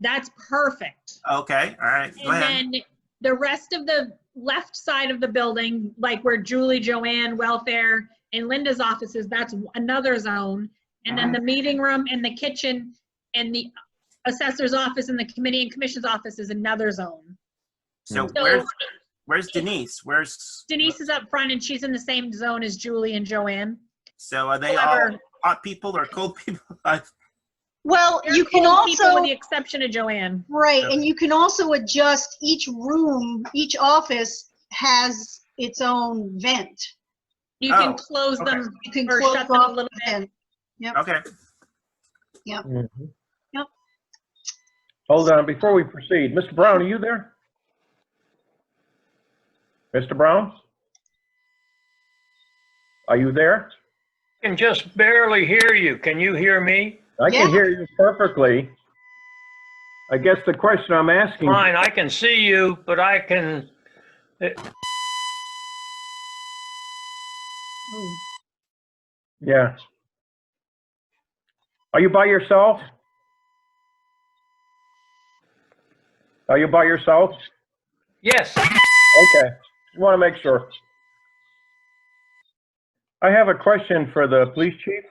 That's perfect. Okay, all right, go And ahead. then the rest of the left side of the building, like where Julie, Joanne, welfare, and Linda's offices, that's another zone. And Uh-huh. then the meeting room and the kitchen and the assessor's office and the committee and commission's office is another zone. So So- where's, where's Denise? Where's? Denise is up front and she's in the same zone as Julie and Joanne. So are they all However, hot people or cold people? I- Well, they're you can cool people With also, the exception of Joanne. right, and you can also adjust each room, each office has its own vent. You can Oh, close okay. them You can or close shut them a off little bit. and, Okay, Mhm. Yep. Hold on, before we proceed, Mr. Brown, are you there? Mr. Brown? Are you there? can just barely hear you. Can you hear me? I can Yeah. hear you perfectly. I guess the question I'm asking, Fine, I can see you, but I can, ooh, yeah. Are you by yourself? Are you by yourself? yes, Okay, just want to make sure. I have a question for the police chief.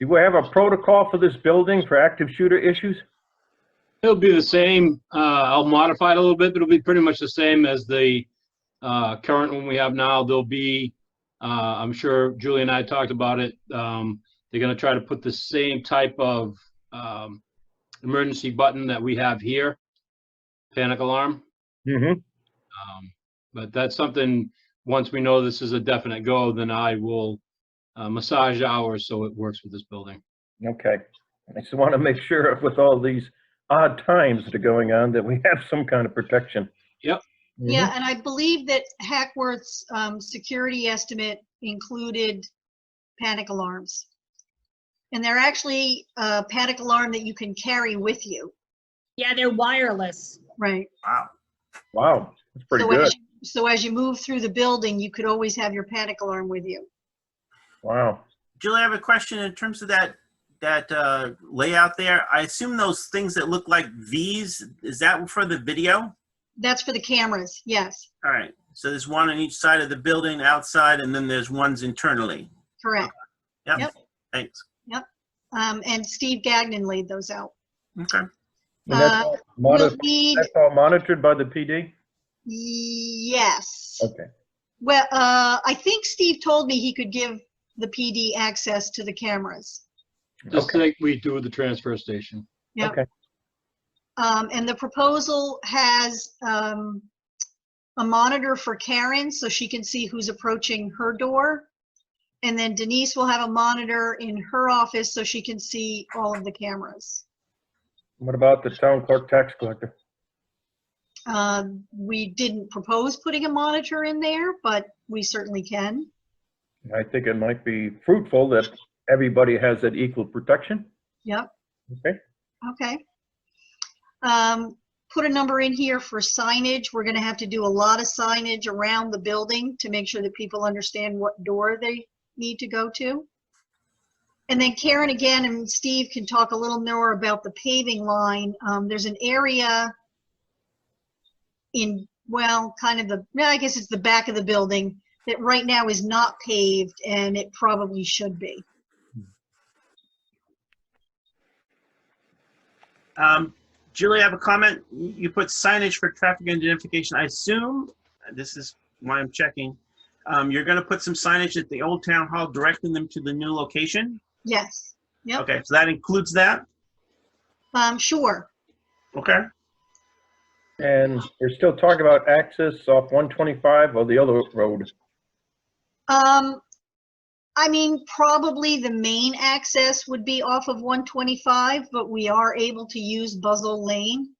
Do we have a protocol for this building for active shooter issues? It'll be the same. Uh, I'll modify it a little bit, but it'll be pretty much the same as the, uh, current one we have now. There'll be, uh, I'm sure Julie and I talked about it. Um, they're gonna try to put the same type of, um, emergency button that we have here, panic alarm. Mm-hmm. Um, but that's something, once we know this is a definite go, then I will, uh, massage ours so it works with this building. Okay, I just want to make sure with all these odd times that are going on that we have some kind of protection. Yep. Mhm. Yeah, and I believe that Hackworth's, um, security estimate included panic alarms. And they're actually a panic alarm that you can carry with you, Yeah, they're wireless. right? wow. Wow, that's pretty So good. as you- So as you move through the building, you could always have your panic alarm with you. Wow. Julie, I have a question in terms of that, that uh, layout there. I assume those things that look like Vs, is that for the video? That's for the cameras, yes, All right, so there's one on each side of the building outside and then there's ones internally. correct. Yep, Yep. thanks. Um, and Steve Gagnon laid those out. Okay. And that's Uh, all We'll monitor- need, That's all monitored by the PD? yes. Okay, Well, uh, I think Steve told me he could give the PD access to the cameras. Just Okay. like we do with the transfer station. Yep. okay. Um, and the proposal has, um, a monitor for Karen so she can see who's approaching her door. And then Denise will have a monitor in her office so she can see all of the cameras. What about the town clerk tax collector? Uh, we didn't propose putting a monitor in there, but we certainly can. I think it might be fruitful that everybody has that equal protection. Yep, Okay, okay. Um, put a number in here for signage. We're gonna have to do a lot of signage around the building to make sure that people understand what door they need to go to. And then Karen again and Steve can talk a little more about the paving line. Um, there's an area in, well, kind of the, no, I guess it's the back of the building that right now is not paved and it probably should be. Um, Julie, I have a comment. You put signage for traffic identification. I assume, this is why I'm checking, um, you're gonna put some signage at the old town hall directing them to the new location? Yes, Yep. Okay, so that includes that? um, sure. Okay. and we're still talking about access off 125 or the other road. Um, I mean, probably the main access would be off of 125, but we are able to use Buzzell Lane.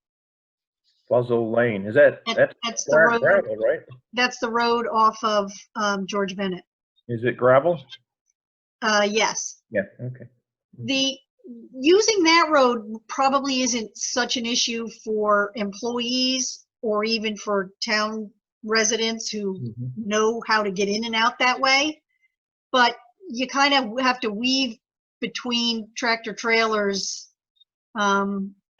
Buzzell Lane, is that, that's That's the gra- road, gravel, right? that's the road off of, um, George Bennett. Is it gravel? Uh, yes. Yeah, okay. The, using that road probably isn't such an issue for employees or even for town residents who know how to get in and out that way. But you kind of have to weave between tractor trailers um,